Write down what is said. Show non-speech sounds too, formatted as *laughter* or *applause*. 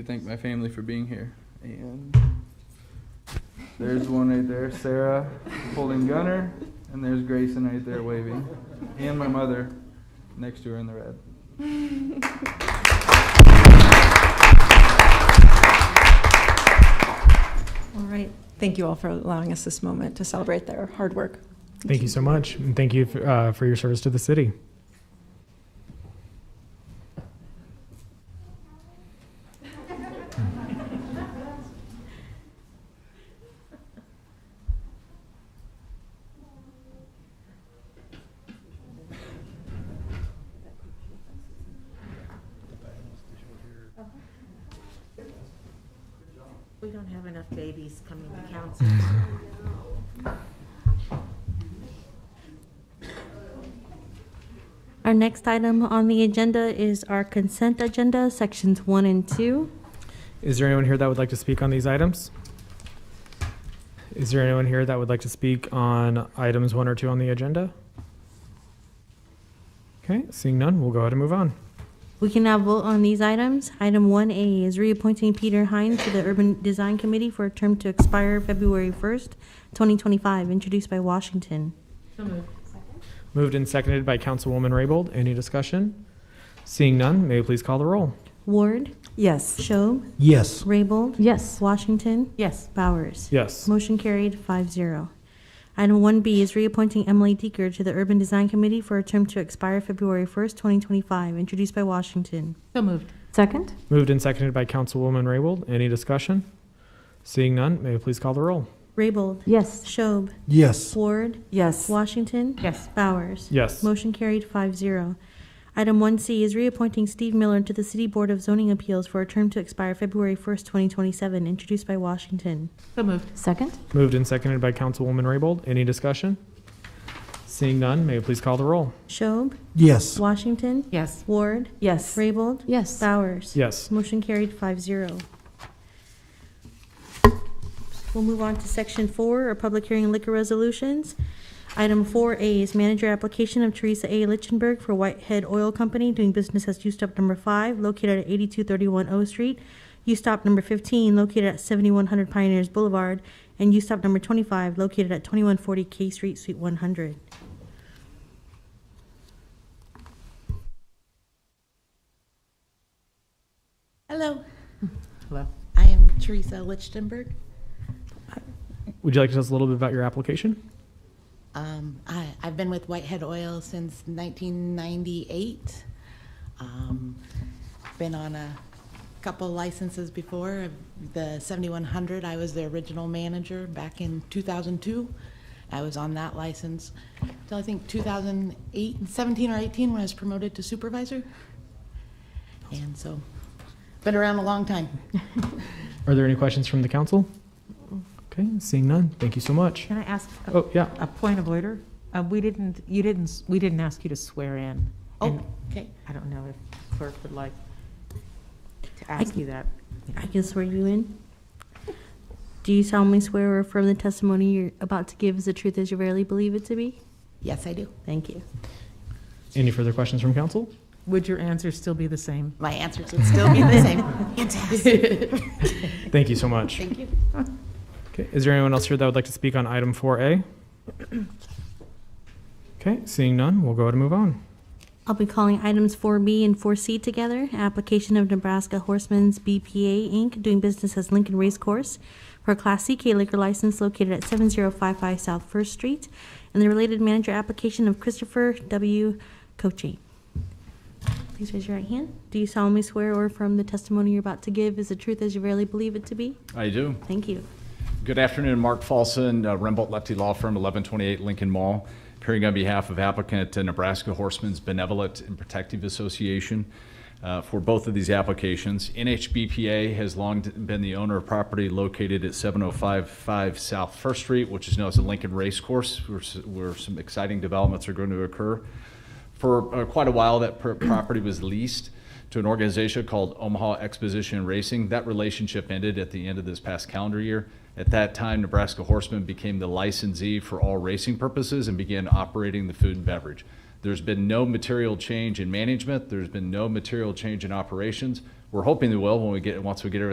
to thank my family for being here. And there's one right there, Sarah holding Gunner, and there's Grayson right there waving, and my mother next to her in the red. All right. Thank you all for allowing us this moment to celebrate their hard work. Thank you so much, and thank you for, uh, for your service to the city. We don't have enough babies coming to council. Our next item on the agenda is our consent agenda, sections one and two. Is there anyone here that would like to speak on these items? Is there anyone here that would like to speak on items one or two on the agenda? Okay, seeing none, we'll go ahead and move on. We can now vote on these items. Item one A is reappointing Peter Hine to the Urban Design Committee for a term to expire February first, twenty twenty-five, introduced by Washington. Moved and seconded by Councilwoman Raybold. Any discussion? Seeing none, may we please call the roll? Ward, *laughs* Yes. Schob, Yes. Raybold. Yes. Washington, Yes, Bowers. Yes. Motion carried, five zero. Item one B is reappointing Emily Deeker to the Urban Design Committee for a term to expire February first, twenty twenty-five, introduced by Washington. so moved. Second? Moved and seconded by Councilwoman Raybold. Any discussion? Seeing none, may we please call the roll? Raybold, Yes. Schob, Yes. Ward, Yes. Washington, Yes, Bowers. Yes. Motion carried 5-0. Item one C is reappointing Steve Miller to the City Board of Zoning Appeals for a term to expire February first, twenty twenty-seven, introduced by Washington. so moved. Second? Moved and seconded by Councilwoman Raybold. Any discussion? Seeing none, may we please call the roll? Schob, Yes. Washington, Yes, Ward, Yes. Raybold, Yes. Bowers. Yes. Motion carried 5-0. zero. We'll move on to section four, our public hearing and liquor resolutions. Item four A is manager application of Teresa A. Lichtenberg for Whitehead Oil Company doing business as U-Stop number five located at eighty-two thirty-one O Street, U-Stop number fifteen located at seventy-one hundred Pioneers Boulevard, and U-Stop number twenty-five located at twenty-one forty K Street, Suite one hundred. Hello, hello. I am Teresa Lichtenberg. Would you like to tell us a little bit about your application? Um, I, I've been with Whitehead Oil since 1998. Um, been on a couple licenses before. The 7100, I was the original manager back in 2002. I was on that license till I think 2008, 17 or 18 when I was promoted to supervisor. And so, been around a long time. Are there any questions from the council? Okay, seeing none, thank you so much. Can I ask a- Oh, yeah. a point of order? Uh, We didn't, you didn't, s- we didn't ask you to swear in. Oh, and okay. I don't know if clerk would like to I ask can- you that. I can swear you in. Do you solemnly swear or affirm the testimony you're about to give is the truth as you rarely believe it to be? Yes, I do. Thank you. Any further questions from council? Would your answer still be the same? My answers would still be the same. Thank you so much. *laughs* Thank you. Okay, is there anyone else here that would like to speak on item 4A? Okay, seeing none, we'll go ahead and move on. I'll be calling items 4B and 4C together. Application of Nebraska Horsemen's BPA Inc., doing business as Lincoln Race Course, for a Class CK liquor license located at 7055 South First Street, and the related manager application of Christopher W. Coche. Please raise your right hand. Do you solemnly swear or affirm the testimony you're about to give is the truth as you rarely believe it to be? I do. Thank you. Good afternoon, Mark Folson, uh, Rembolt Lefty Law Firm, 1128 Lincoln Mall, appearing on behalf of applicant uh, Nebraska Horsemen's Benevolent and Protective Association uh, for both of these applications. NHBPA has long been the owner of property located at 7055 South First Street, which is known as the Lincoln Race Course, where s- where some exciting developments are going to occur. For uh, quite a while, that per- property was leased to an organization called Omaha Exposition Racing. That relationship ended at the end of this past calendar year. At that time, Nebraska Horsemen became the licensee for all racing purposes and began operating the food and beverage. There's been no material change in management. There's been no material change in operations. We're hoping they will when we get, once we get everything